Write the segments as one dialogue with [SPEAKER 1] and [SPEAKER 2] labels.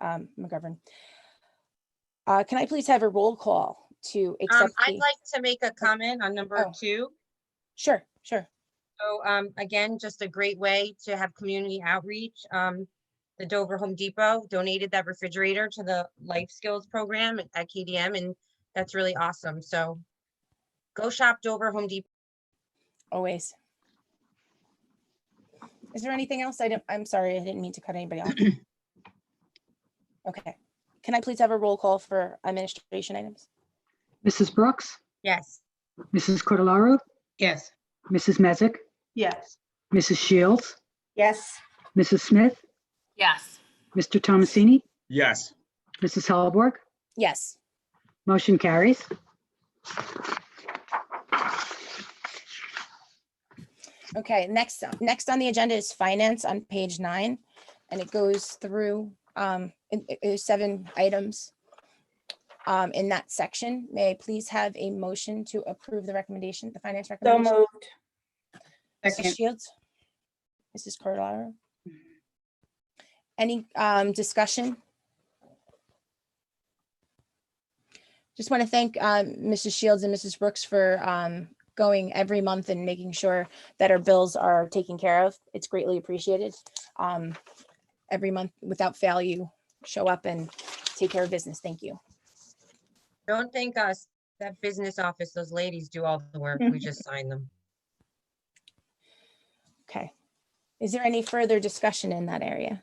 [SPEAKER 1] um, McGovern. Uh, Can I please have a roll call to
[SPEAKER 2] Um,
[SPEAKER 1] accept
[SPEAKER 2] I'd
[SPEAKER 1] the,
[SPEAKER 2] like to make a comment on number
[SPEAKER 1] Oh.
[SPEAKER 2] two.
[SPEAKER 1] sure, sure.
[SPEAKER 2] So, um, again, just a great way to have community outreach. Um, the Dover Home Depot donated that refrigerator to the Life Skills Program at- at KDM, and that's really awesome. So go shop Dover Home Depot.
[SPEAKER 1] Always. Is there anything else? I don't, I'm sorry, I didn't mean to cut anybody off. Okay. Can I please have a roll call for administration items?
[SPEAKER 3] Mrs. Brooks,
[SPEAKER 2] Yes.
[SPEAKER 3] Mrs. Cordalaru,
[SPEAKER 4] Yes.
[SPEAKER 3] Mrs. Mezak,
[SPEAKER 4] Yes.
[SPEAKER 3] Mrs. Shields,
[SPEAKER 4] Yes.
[SPEAKER 3] Mrs. Smith,
[SPEAKER 5] Yes.
[SPEAKER 3] Mr. Thomasini,
[SPEAKER 6] Yes,
[SPEAKER 3] Mrs. Halborg.
[SPEAKER 1] Yes.
[SPEAKER 3] Motion carries.
[SPEAKER 1] Okay, next, next on the agenda is finance on page nine, and it goes through um, it- it- it is seven items um, in that section. May I please have a motion to approve the recommendation, the finance
[SPEAKER 4] So
[SPEAKER 1] recommendation?
[SPEAKER 4] moved.
[SPEAKER 1] Mrs. Shields? Mrs. Cordero? Mm-hmm. Any um, discussion? Just want to thank um, Mrs. Shields and Mrs. Brooks for um, going every month and making sure that our bills are taken care of. It's greatly appreciated. Um, Every month, without fail, you show up and take care of business. Thank you.
[SPEAKER 2] Don't thank us. That business office, those ladies do all the work. We just sign them.
[SPEAKER 1] Okay. Is there any further discussion in that area?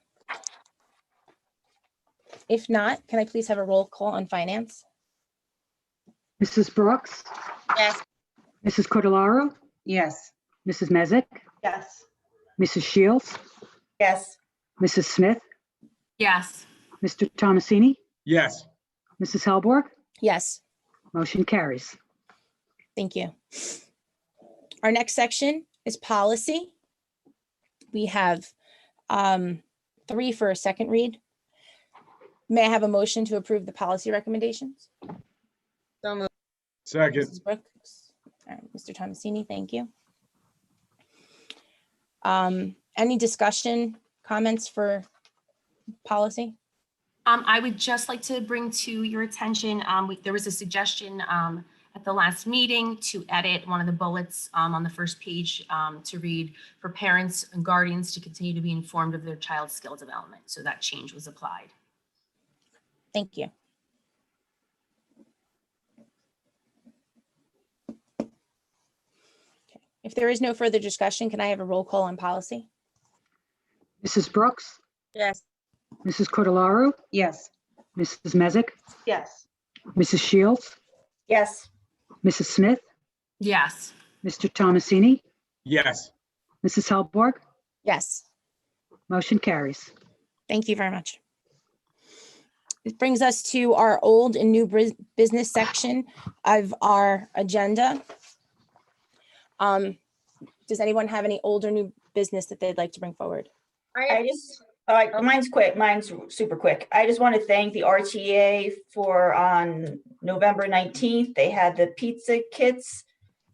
[SPEAKER 1] If not, can I please have a roll call on finance?
[SPEAKER 3] Mrs. Brooks,
[SPEAKER 2] Yes.
[SPEAKER 3] Mrs. Cordalaru,
[SPEAKER 4] Yes.
[SPEAKER 3] Mrs. Mezak,
[SPEAKER 4] Yes.
[SPEAKER 3] Mrs. Shields,
[SPEAKER 4] Yes.
[SPEAKER 3] Mrs. Smith,
[SPEAKER 5] Yes.
[SPEAKER 3] Mr. Thomasini,
[SPEAKER 6] yes,
[SPEAKER 3] Mrs. Halborg.
[SPEAKER 1] Yes,
[SPEAKER 3] Motion carries.
[SPEAKER 1] thank you. Our next section is policy. We have um, three for a second read. May I have a motion to approve the policy recommendations?
[SPEAKER 2] So moved.
[SPEAKER 6] second,
[SPEAKER 1] Mrs. Brooks, all right, Mr. Thomasini, thank you. Um, Any discussion, comments for policy?
[SPEAKER 5] Um, I would just like to bring to your attention, um, we- there was a suggestion, um, at the last meeting to edit one of the bullets, um, on the first page, um, to read for parents and guardians to continue to be informed of their child's skill development. So that change was applied.
[SPEAKER 1] Thank you. Okay, If there is no further discussion, can I have a roll call on policy?
[SPEAKER 3] Mrs. Brooks,
[SPEAKER 2] Yes.
[SPEAKER 3] Mrs. Cordalaru,
[SPEAKER 4] Yes.
[SPEAKER 3] Mrs. Mezak,
[SPEAKER 4] Yes.
[SPEAKER 3] Mrs. Shields,
[SPEAKER 4] Yes.
[SPEAKER 3] Mrs. Smith,
[SPEAKER 5] Yes.
[SPEAKER 3] Mr. Thomasini,
[SPEAKER 6] yes,
[SPEAKER 3] Mrs. Halborg.
[SPEAKER 1] Yes,
[SPEAKER 3] Motion carries.
[SPEAKER 1] thank you very much. This brings us to our old and new bris- business section of our agenda. Um, Does anyone have any old or new business that they'd like to bring forward?
[SPEAKER 7] I just, uh, mine's quick, mine's super quick. I just want to thank the RTA for on November nineteenth, they had the pizza kits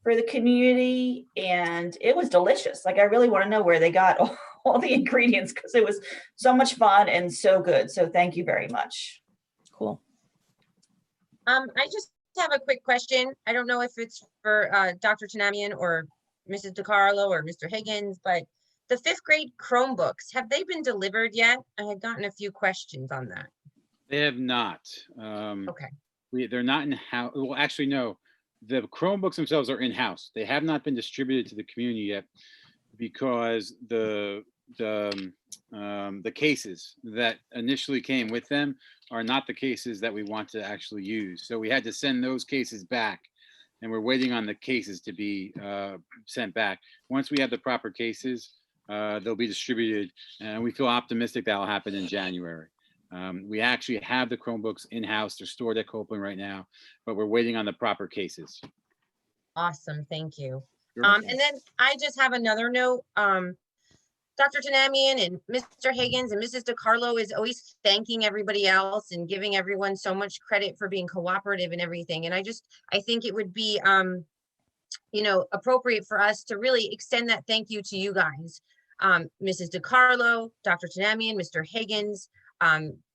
[SPEAKER 7] for the community and it was delicious. Like, I really want to know where they got all, all the ingredients because it was so much fun and so good. So thank you very much.
[SPEAKER 1] Cool.
[SPEAKER 2] Um, I just have a quick question. I don't know if it's for uh, Dr. Tanamian or Mrs. DiCarlo or Mr. Higgins, but the fifth grade Chromebooks, have they been delivered yet? I had gotten a few questions on that.
[SPEAKER 8] They have not. Um,
[SPEAKER 2] Okay.
[SPEAKER 8] we- they're not in house. Well, actually, no. The Chromebooks themselves are in house. They have not been distributed to the community yet because the the um, um, the cases that initially came with them are not the cases that we want to actually use. So we had to send those cases back, and we're waiting on the cases to be uh, sent back. Once we have the proper cases, uh, they'll be distributed, and we feel optimistic that'll happen in January. Um, we actually have the Chromebooks in-house. They're stored at Copeland right now, but we're waiting on the proper cases.
[SPEAKER 2] Awesome, thank you. Um, and then I just have another note. Um, Dr. Tanamian and Mr. Higgins and Mrs. DiCarlo is always thanking everybody else and giving everyone so much credit for being cooperative and everything. And I just, I think it would be, um, you know, appropriate for us to really extend that thank you to you guys. Um, Mrs. DiCarlo, Dr. Tanamian, Mr. Higgins, um,